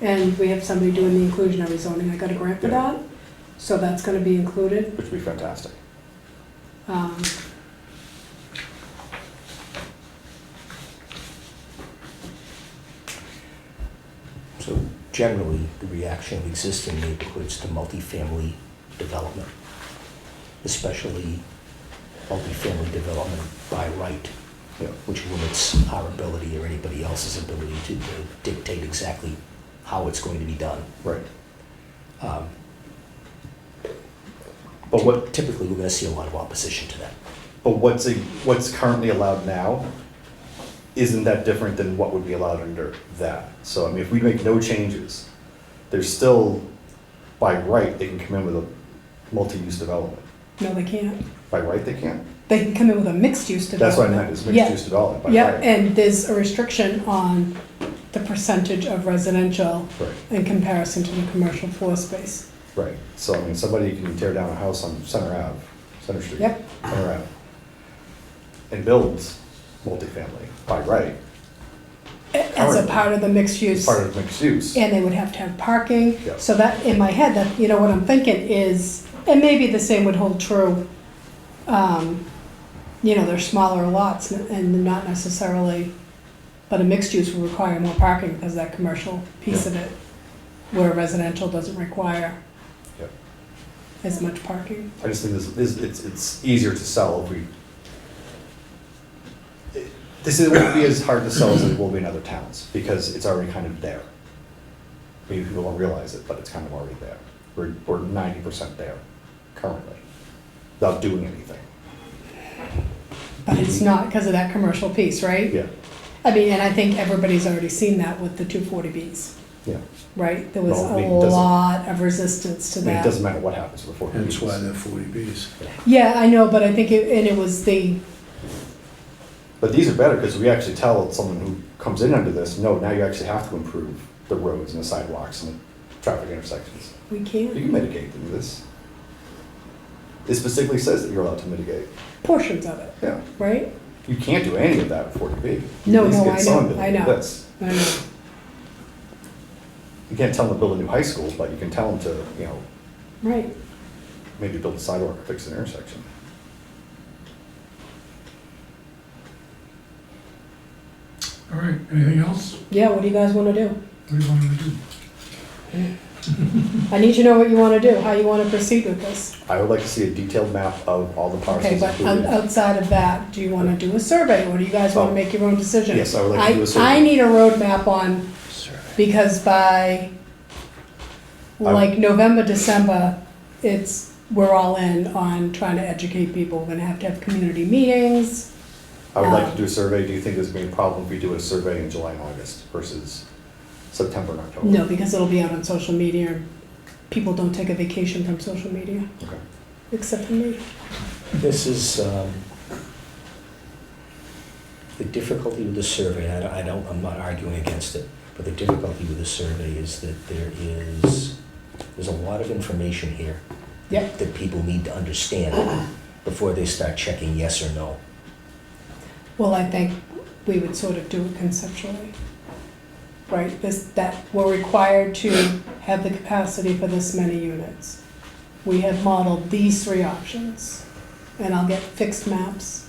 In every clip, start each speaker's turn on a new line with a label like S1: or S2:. S1: And we have somebody doing the inclusionary zoning. I got a grant for
S2: Yeah.
S1: that, so that's gonna be included.
S2: which would be fantastic.
S1: Um,
S3: So generally, the reaction of existing neighborhoods to multifamily development, especially multifamily development by right,
S2: Yeah.
S3: which limits our ability or anybody else's ability to to dictate exactly how it's going to be done.
S2: Right.
S3: Um,
S2: But what,
S3: Typically, we're gonna see a lot of opposition to that.
S2: but what's, a- what's currently allowed now, isn't that different than what would be allowed under that? So, I mean, if we make no changes, there's still, by right, they can come in with a multi-use development.
S1: no, they can't.
S2: By right, they can?
S1: They can come in with a mixed-use
S2: That's what I
S1: development.
S2: meant, is
S1: Yeah.
S2: mixed-use development, by right.
S1: Yeah, and there's a restriction on the percentage of residential
S2: Right,
S1: in comparison to the commercial floor space.
S2: right. So, I mean, somebody can tear down a house on Center Ave, Center Street.
S1: Yep.
S2: Center Ave. And build multifamily by right,
S1: a- As a
S2: Currently.
S1: part of the mixed
S2: It's
S1: use.
S2: part of mixed use.
S1: And they would have to have parking.
S2: Yeah.
S1: So that, in my head, that, you know, what I'm thinking is, and maybe the same would hold true. um, You know, they're smaller lots n- and not necessarily, but a mixed use will require more parking because that commercial piece of it, where residential doesn't require
S2: Yeah.
S1: as much parking.
S2: I just think this, this, it's, it's easier to sell if we. This is, won't be as hard to sell as it will be in other towns, because it's already kind of there. Maybe people don't realize it, but it's kind of already there. We're, we're ninety percent there currently, without doing anything.
S1: But it's not because of that commercial piece, right?
S2: Mm-hmm. Yeah,
S1: I mean, and I think everybody's already seen that with the 240Bs,
S2: yeah.
S1: right? There was
S2: No, I mean,
S1: a
S2: it doesn't-
S1: lot of resistance to
S2: I
S1: that.
S2: mean, it doesn't matter what happens to the forty
S4: That's why they're forty Bs.
S1: Yeah, I know, but I think it, and it was the,
S2: But these are better, because we actually tell someone who comes in under this, no, now you actually have to improve the roads and the sidewalks and the traffic intersections.
S1: we
S2: You
S1: can't,
S2: can mitigate through this. It specifically says that you're allowed to mitigate.
S1: portions of it,
S2: Yeah.
S1: right?
S2: You can't do any of that with forty B.
S1: No, no, I know, I know. I know.
S2: You can't tell them to build a new high school, but you can tell them to, you know,
S1: Right,
S2: maybe build a sidewalk or fix an intersection.
S4: All right, anything else?
S1: yeah, what do you guys wanna do?
S4: What do you want me to do?
S1: I need to know what you wanna do, how you wanna proceed with this.
S2: I would like to see a detailed map of all the parcels
S1: Okay, but um,
S2: included.
S1: outside of that, do you wanna do a survey, or do you guys wanna
S2: Oh.
S1: make your own decision?
S2: Yes, I would like to do a survey.
S1: I need a roadmap on, because by,
S2: I-
S1: like, November, December, it's, we're all in on trying to educate people, we're gonna have to have community meetings.
S2: I would
S1: uh,
S2: like to do a survey. Do you think there's gonna be a problem if we do a survey in July and August versus September and October?
S1: No, because it'll be out on social media. People don't take a vacation from social media,
S2: Okay.
S1: except for me.
S3: This is, um, the difficulty with the survey, I don't- I don't, I'm not arguing against it, but the difficulty with the survey is that there is, there's a lot of information here
S1: Yep.
S3: that people need to understand before they start checking yes or no.
S1: Well, I think we would sort of do it conceptually. Right, this, that, we're required to have the capacity for this many units. We have modeled these three options, and I'll get fixed maps.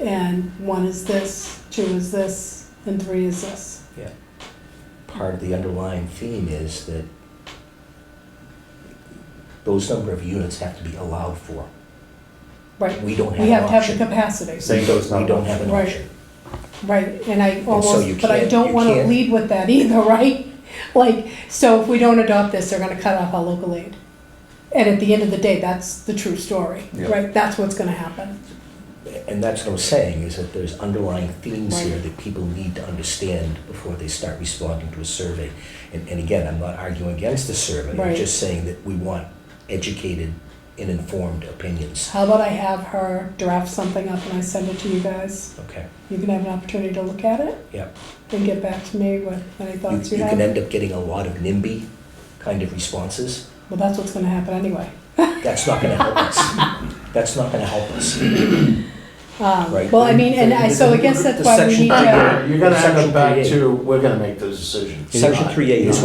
S1: And one is this, two is this, and three is this.
S3: Part of the underlying theme is that those number of units have to be allowed for.
S1: Right,
S3: We don't have
S1: we
S3: an
S1: have to have the
S3: option.
S1: capacity.
S2: Saying those
S3: We
S2: not.
S3: don't have an
S1: Right.
S3: option.
S1: Right, and I
S3: so you
S1: almost, but I
S3: can't-
S1: don't
S3: you
S1: wanna
S3: can't-
S1: lead with that either, right? Like, so if we don't adopt this, they're gonna cut off our local aid. And at the end of the day, that's the true story,
S2: Yeah.
S1: right? That's what's gonna happen.
S3: And that's what I'm saying, is that there's underlying themes
S1: Right.
S3: here that people need to understand before they start responding to a survey. And, and again, I'm not arguing against the survey,
S1: Right.
S3: I'm just saying that we want educated and informed opinions.
S1: How about I have her draft something up and I send it to you guys?
S3: Okay,
S1: You can have an opportunity to look at it
S3: yeah.
S1: and get back to me with any
S3: You,
S1: thoughts you
S3: you can
S1: have.
S3: end up getting a lot of NIMBY kind of responses.
S1: Well, that's what's gonna happen anyway.
S3: That's not gonna help us. That's not gonna help us,
S1: Um,
S3: right?
S1: Well, I mean, and I, so I guess that's why we need to.
S5: You're gonna end
S3: Section
S5: up back
S3: 38.
S5: to, we're gonna make those decisions.
S3: Section three A is